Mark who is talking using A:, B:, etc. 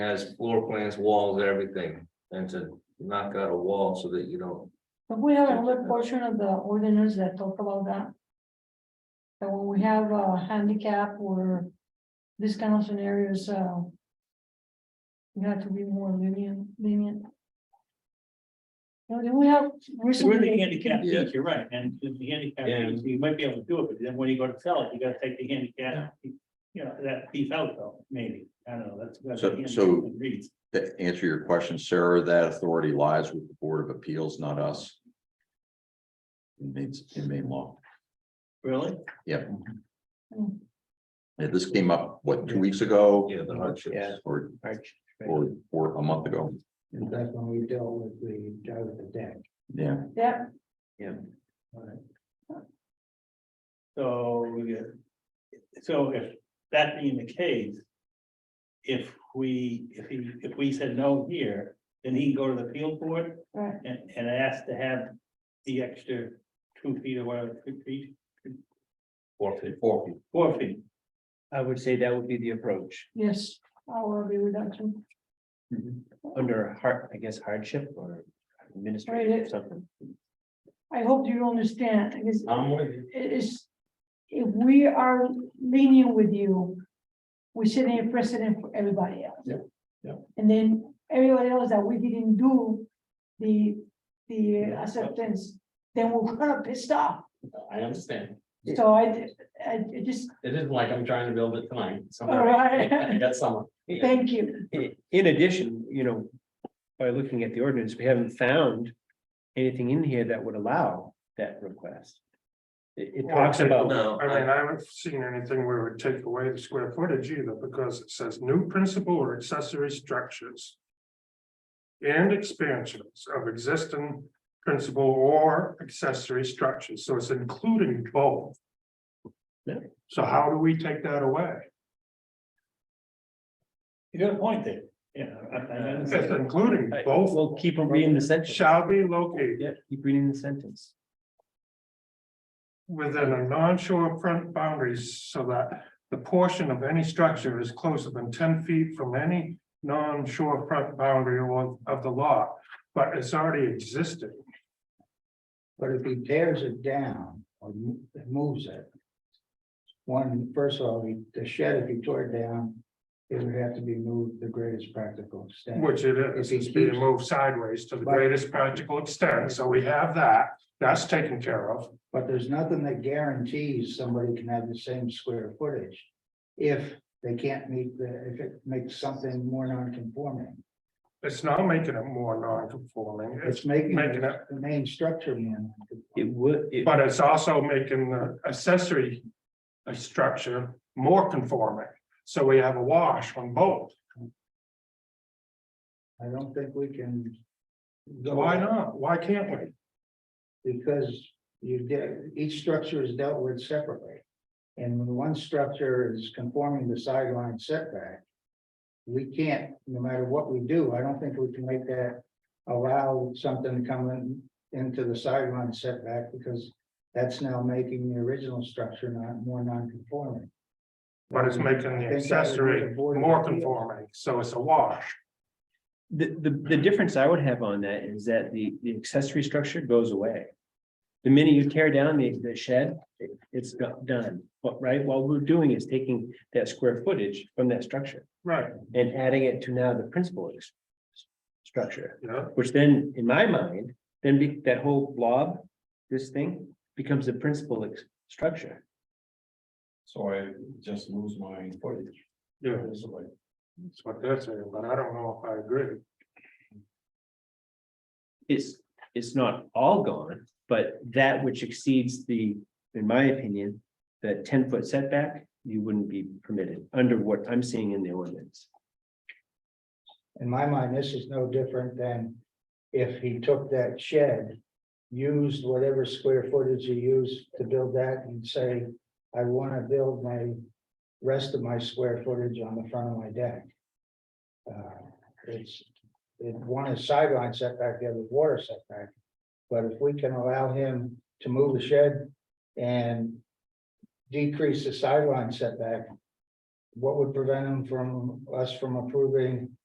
A: has floor plans, walls, everything, and to knock out a wall so that you don't.
B: But we have another portion of the ordinance that talk about that. That when we have a handicap or this kind of scenarios, uh. We have to be more lenient, lenient. You know, then we have
C: We're the
B: recently,
C: handicap,
A: Yeah.
C: you're right, and the- the handicap,
A: And-
C: piece, you might be able to do it, but then when you go to sell it, you gotta take the handicap. You know, that piece out though, maybe, I don't know, that's. that's what
D: So-
C: handicap
D: so-
C: reads.
D: To answer your question, Sarah, that authority lies with the Board of Appeals, not us. In Maine, in Maine law.
C: Really?
D: Yeah.
B: Hmm.
D: Yeah, this came up, what, two weeks ago?
A: Yeah, the hardships.
E: Yeah.
D: Or,
E: Arch.
D: or, or a month ago.
E: And that's when we dealt with the, dealt with the deck.
D: Yeah,
B: yeah,
C: So, we get- so if that being the case. If we, if he, if we said no here, then he can go to the appeal board
B: right,
C: and, and ask to have the extra two feet or whatever, two feet,
A: Four feet.
C: four feet.
E: I would say that would be the approach,
B: yes, I will agree with that too.
E: under hard, I guess hardship or
B: Right,
E: administrative
B: it-
E: or something.
B: I hope you understand, I guess.
A: I'm with you.
B: it is, if we are leaning with you, we're setting a precedent for everybody else.
E: Yeah, yeah.
B: And then everybody else that we didn't do the, the acceptance, then we're gonna piss off.
F: I understand.
B: So I, I I just,
F: It isn't like I'm trying to build it tonight.
E: Oh.
B: all right,
F: That's someone.
B: thank you.
E: I- In addition, you know, by looking at the ordinance, we haven't found anything in here that would allow that request. It, it talks about,
A: No,
G: I
A: I-
G: mean, I haven't seen anything where it would take away the square footage either, because it says new principal or accessory structures. And expansions of existing principal or accessory structures, so it's including both.
E: Yeah.
G: So how do we take that away?
C: You got a point there, yeah. I- I
G: It's
C: understand.
G: including both
E: we'll keep reading the sentence.
G: shall be located
E: Yeah, keep reading the sentence.
G: within a non-shore front boundaries so that. The portion of any structure is closer than ten feet from any non-shore front boundary or of the lot, but it's already existed.
H: But if he tears it down or mo- moves it. One, first of all, he- the shed, if he tore it down, it would have to be moved the greatest practical extent.
G: Which it is, it's being moved sideways to the greatest practical extent, so we have that, that's taken care of.
H: But there's nothing that guarantees somebody can have the same square footage. If they can't meet the, if it makes something more non-conforming,
G: It's not making it more non-conforming, it's,
H: it's making
G: Making it-
H: the the main structure man.
E: It would, it,
G: but it's also making the accessory. uh, structure more conforming, so we have a wash on both.
H: I don't think we can. go-
G: Why not? Why can't we?
H: Because you get, each structure is dealt with separately. And when one structure is conforming to sideline setback. We can't, no matter what we do, I don't think we can make that allow something to come in into the sideline setback because. That's now making the original structure not more non-conforming.
G: But it's making the accessory more conforming, so it's a wash.
E: The, the, the
F: Mm-hmm.
E: difference I would have on that is that the, the accessory structure goes away. The minute you tear down the, the shed, it- it's go- done, but right, what we're doing is taking that square footage from that structure
G: Right.
E: and adding it to now the principal is- structure,
G: Yeah,
E: which then, in my mind, then be, that whole blob, this thing becomes the principal ex- structure.
F: So I just lose my footage.
G: yeah, that's what they're saying, but I don't know if I agree.
E: It's, it's not all gone, but that which exceeds the, in my opinion, the ten foot setback, you wouldn't be permitted under what I'm seeing in the ordinance.
H: In my mind, this is no different than if he took that shed. Used whatever square footage he used to build that and say, I want to build my. Rest of my square footage on the front of my deck. Uh, It's, it, one is sideline setback, the other is water setback. But if we can allow him to move the shed and. Decrease the sideline setback. What would prevent him from, us from approving